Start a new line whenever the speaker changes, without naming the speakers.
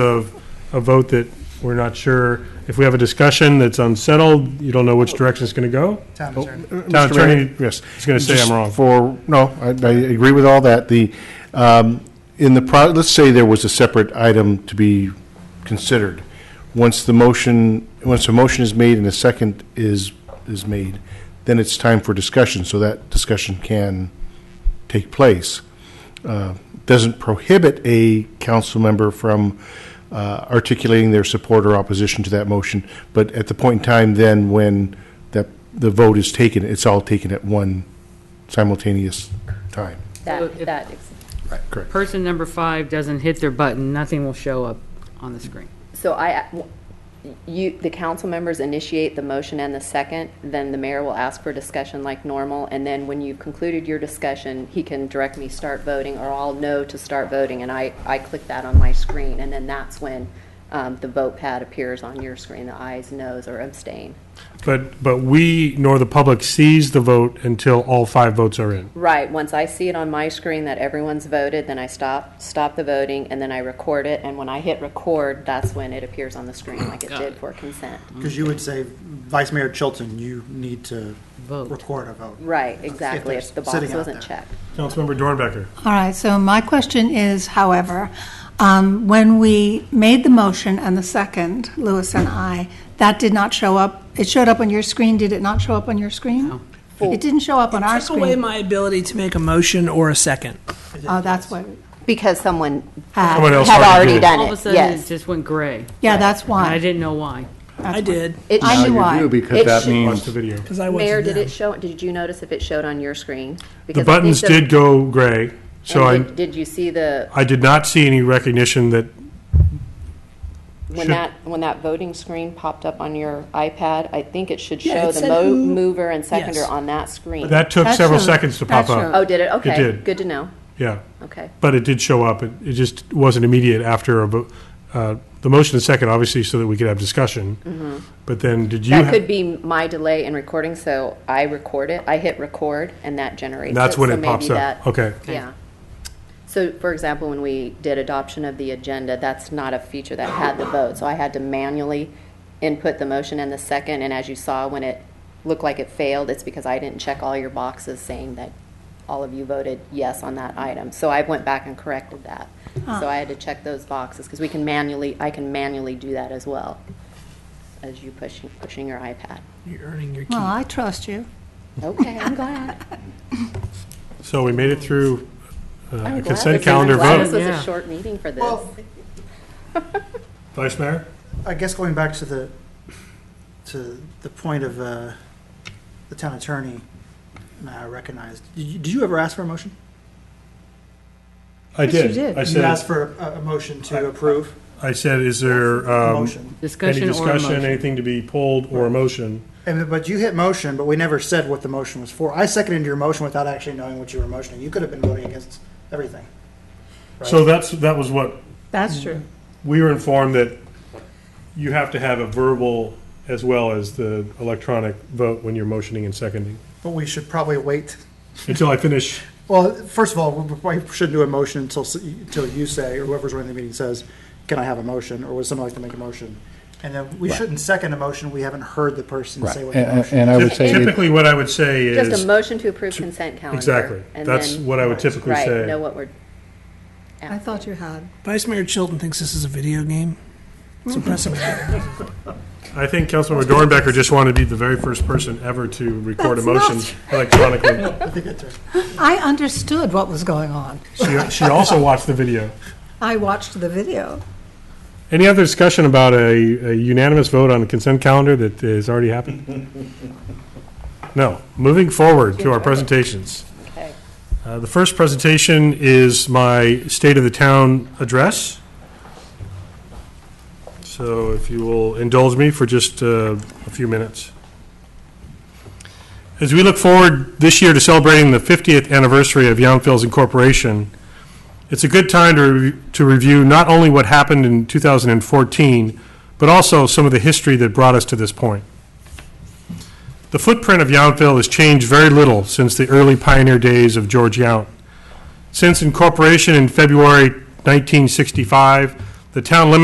of a vote that we're not sure, if we have a discussion that's unsettled, you don't know which direction it's going to go?
Town
Oh,
attorney.
uh,
Town
Mr. Mayor,
attorney, yes, is going to say I'm
just
wrong.
For, no, I, I agree with all that. The, um, in the, pro- let's say there was a separate item to be considered. Once the motion, once a motion is made and a second is, is made, then it's time for discussion, so that discussion can take place. Uh, Doesn't prohibit a council member from uh, articulating their support or opposition to that motion, but at the point in time then when that, the vote is taken, it's all taken at one simultaneous time.
So
That,
if-
that, ex-
Right. Correct.
Person number five doesn't hit their button, nothing will show up on the screen.
so I, you, the council members initiate the motion and the second, then the mayor will ask for discussion like normal, and then when you've concluded your discussion, he can direct me start voting, or I'll know to start voting, and I, I click that on my screen, and then that's when um, the vote pad appears on your screen, the ayes, noes, or abstain.
But, but we, nor the public sees the vote until all five votes are in.
Right, once I see it on my screen that everyone's voted, then I stop, stop the voting, and then I record it, and when I hit record, that's when it appears on the screen like it
Got
did
it. Mm-hmm.
for consent.
Because you would say, Vice Mayor Chilton, you need to
Vote.
record a vote.
Right, exactly,
they're
if the box
sitting out
wasn't
there.
checked.
Councilmember Dornbecker.
All right, so my question is, however, um, when we made the motion and the second, Lewis and I, that did not show up, it showed up on your screen, did it not show up on your screen? It didn't show up on our
took away
screen.
my ability to make a motion or a second.
Oh, that's what,
Because someone
Someone
had
else
had
already
already
did it.
done
All of a
it,
sudden, it
yes.
just went gray.
yeah, that's
And I
why.
didn't know why.
I did,
It
I
should-
knew why.
You do, because
It
that
should-
Watch
means,
the video.
because I wasn't
Mayor, did
there.
it show, did you notice if it showed on your screen?
The
Because I think
buttons
the-
did go gray, so I,
and did- Did you see the,
I did not see any recognition that,
when
Should-
that, when that voting screen popped up on your iPad, I think it should
Yeah,
show
it
the
said
mo-
who-
mover and seconder
Yes.
on that screen.
that took
That
several
showed-
seconds to
that
pop up.
showed.
Oh, did it? Okay,
did.
good to know,
Yeah,
okay.
but it did show up. It, it just wasn't immediate after a, vo- uh, the motion and second, obviously, so that we could have discussion. But then, did you?
Mm-hmm. That
ha-
could be my delay in recording, so I record it, I hit record, and that generates it.
And that's when
so
it pops
maybe
up.
that-
Okay.
Yeah. So, for example, when we did adoption of the agenda, that's not a feature that had the vote. So I had to manually input the motion and the second, and as you saw, when it looked like it failed, it's because I didn't check all your boxes saying that all of you voted yes on that item. So I went back and corrected that. So I had to check those boxes, because we can manually, I can manually do that as well, as you pushing, pushing your iPad.
You're earning your keep.
Well, I trust you.
Okay, I'm glad.
So we made it through uh, a
I'm glad
consent
this- I'm
calendar
glad This
vote.
was
Yeah.
a short meeting for this.
Well,
Vice Mayor?
I guess going back to the, to the point of uh, the town attorney, and I recognized, did you- did you ever ask for a motion?
I
Yes, you
did.
did.
I
You asked
said,
for a, a motion to approve
I said, is there
a
um,
motion.
any
Discussion or a
discussion,
motion.
anything to be pulled or a motion?
And, but you hit motion, but we never said what the motion was for. I seconded your motion without actually knowing what you were motioning. You could have been voting against everything.
So that's, that was what,
That's true.
we were informed that you have to have a verbal as well as the electronic vote when you're motioning and seconding.
But we should probably wait.
Until I finish,
Well, first of all, we probably shouldn't do a motion until, s- until you say, or whoever's running the meeting says, can I have a motion, or would someone like to make a motion? And then we shouldn't second a motion, we haven't heard the person
right,
say what
And-
the
and
motion.
and I would say, it-
typically what I would say is.
Just a motion to approve consent calendar.
Exactly.
and
That's
then-
what I would typically
Right, know
say.
what we're.
I thought you had.
Vice Mayor Chilton thinks this is a video game. It's
Mm-hmm.
impressive.
I think Councilmember Dornbecker just wanted to be the very first person ever to record a
That's not-
motion electronically.
I understood what was going on.
She, she also watched the video.
I watched the video.
Any other discussion about a a unanimous vote on the consent calendar that has already happened? No. Moving forward to our presentations.
Okay.
Uh, The first presentation is my State of the Town address. So if you will indulge me for just uh, a few minutes. As we look forward this year to celebrating the 50th anniversary of Young Fields Incorporation, it's a good time to, re- to review not only what happened in 2014, but also some of the history that brought us to this point. The footprint of Yountville has changed very little since the early pioneer days of George Yount. Since incorporation in February 1965, the town limits